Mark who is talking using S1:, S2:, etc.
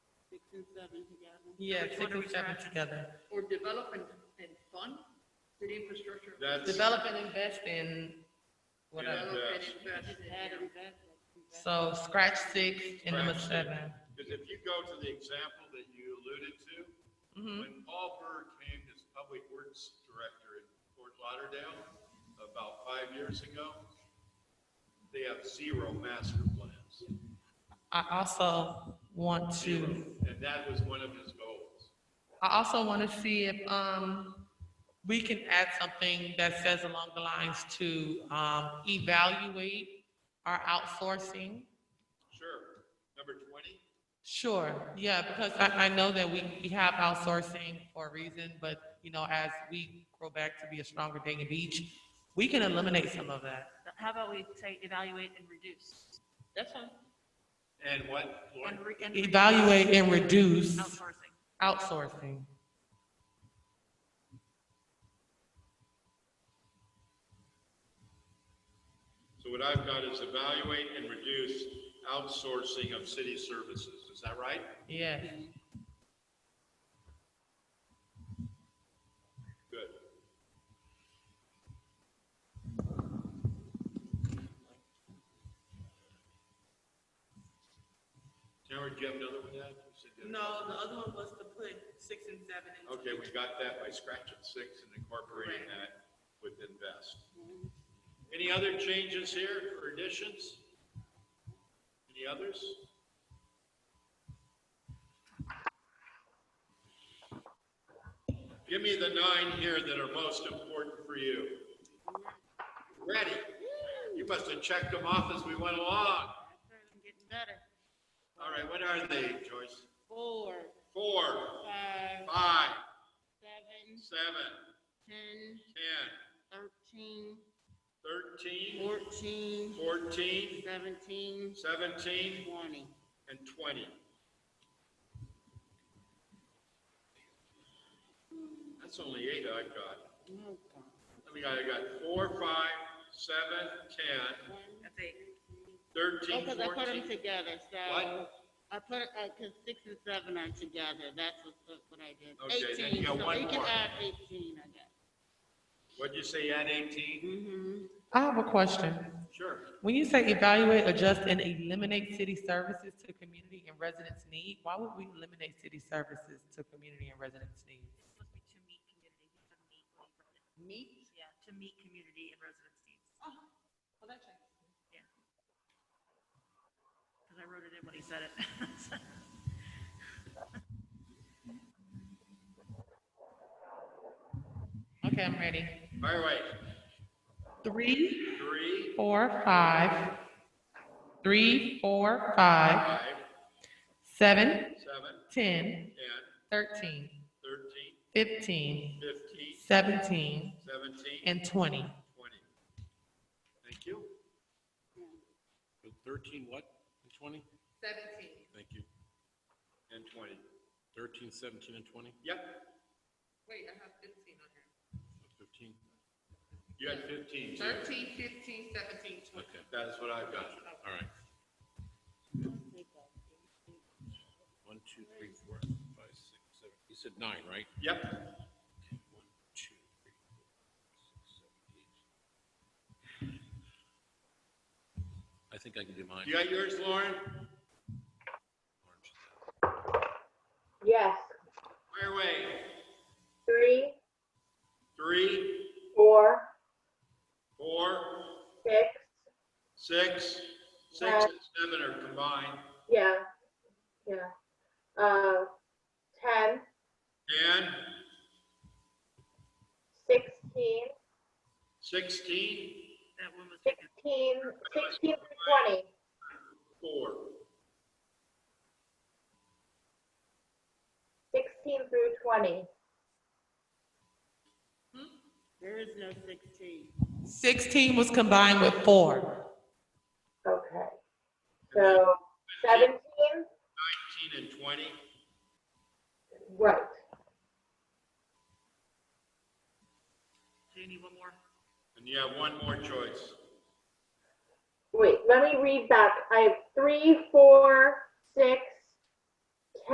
S1: and seven together?
S2: Yeah,
S3: Which
S2: six
S3: one are
S2: and
S3: we
S2: seven
S3: scratching?
S2: together.
S3: Or develop and, and fund city infrastructure.
S4: That's, uh,
S2: Develop and invest in whatever.
S3: Develop and
S4: Yes.
S3: invest
S1: Just
S3: in-
S1: add them back, like you got-
S2: So scratch six and number
S4: Scratch six.
S2: seven.
S4: because if you go to the example that you alluded to,
S2: Mhm.
S4: when Paul Berg came as Public Works Director in Fort Lauderdale about five years ago, they have zero master plans.
S2: I also want to,
S4: Zero. And that was one of his goals.
S2: I also want to see if, um, we can add something that says along the lines to, um, evaluate our outsourcing.
S4: Sure. Number 20?
S2: Sure, yeah, because I, I know that we, we have outsourcing for a reason, but, you know, as we grow back to be a stronger Dayton Beach, we can eliminate some of that.
S5: How about we say evaluate and reduce?
S1: That's fine.
S4: And what, Lori?
S5: And re- and reduce
S2: Evaluate and reduce
S5: Outsourcing.
S2: outsourcing.
S4: So what I've got is evaluate and reduce outsourcing of city services. Is that right?
S2: Yes,
S4: Good. Tamara, do you have another one yet? You said you had-
S2: No, the other one was to put six and seven in.
S4: Okay, we got that by scratching six and incorporating that with invest. Any other changes here or additions? Any others? Give me the nine here that are most important for you. Ready? You must have checked them off as we went along.
S1: That's right, I'm getting better.
S4: All right, what are they, Joyce?
S1: Four,
S4: Four,
S1: five,
S4: five,
S1: seven,
S4: seven,
S1: ten,
S4: ten,
S1: thirteen,
S4: 13,
S1: fourteen,
S4: 14,
S1: seventeen,
S4: 17,
S1: twenty.
S4: and 20. That's only eight I got.
S1: Oh, God.
S4: I mean, I got four, five, seven,
S1: One,
S5: That's eight.
S4: 10,
S1: Oh,
S4: 13,
S1: because I put
S4: 14.
S1: them together, so.
S4: What?
S1: I put, uh 'cause six and seven are together, that's what, that's what I did. Eighteen,
S4: Okay, then you got
S1: so
S4: one
S1: we can
S4: more.
S1: add eighteen, I guess.
S4: What'd you say, you had 18?
S1: Mm-hmm,
S2: I have a question.
S4: Sure.
S2: When you say evaluate, adjust, and eliminate city services to community and residents' need, why would we eliminate city services to community and residents' needs?
S5: It's supposed to be to meet community, he said meet. when he wrote it.
S1: meat,
S5: Yeah, to meet community and residents' needs. Oh, well, that changes. Yeah. Because I wrote it in when he said it.
S2: Okay, I'm ready.
S4: All right,
S2: Three,
S4: three,
S2: four, five. Three, four, five,
S4: five,
S2: seven,
S4: seven,
S2: ten,
S4: 10,
S2: thirteen,
S4: 13,
S2: fifteen,
S4: 15,
S2: seventeen,
S4: 17,
S2: and twenty.
S4: 20. Thank you.
S6: But Thirteen what? And twenty?
S2: Seventeen.
S6: Thank you.
S4: And 20.
S6: Thirteen, seventeen, and twenty?
S4: Yep,
S2: Wait, I have fifteen on here.
S6: Fifteen?
S4: you had 15 too.
S2: Thirteen, fifteen, seventeen, twenty.
S6: Okay,
S4: That is what I've got.
S6: all right. One, two, three, four, five, six, seven. You said nine, right?
S4: Yep.
S6: Okay, One, two, three, four, five, six, seven, eight. I think I can do mine.
S4: You got yours, Lauren?
S6: Orange.
S7: Yes.
S4: Fire away.
S7: Three,
S4: Three,
S7: four,
S4: four,
S7: six.
S4: six, six and seven are combined.
S7: Yeah. Yeah. Uh, ten,
S4: Ten,
S7: sixteen,
S4: sixteen,
S5: That one was taken.
S7: sixteen, sixteen through twenty.
S4: four.
S7: Sixteen through twenty.
S1: there is no sixteen.
S2: 16 was combined with four.
S7: Okay. So seventeen,
S4: Nineteen and twenty.
S7: right.
S5: Do you need one more?
S4: And you have one more choice.
S7: Wait, let me read back. I have three, four, six,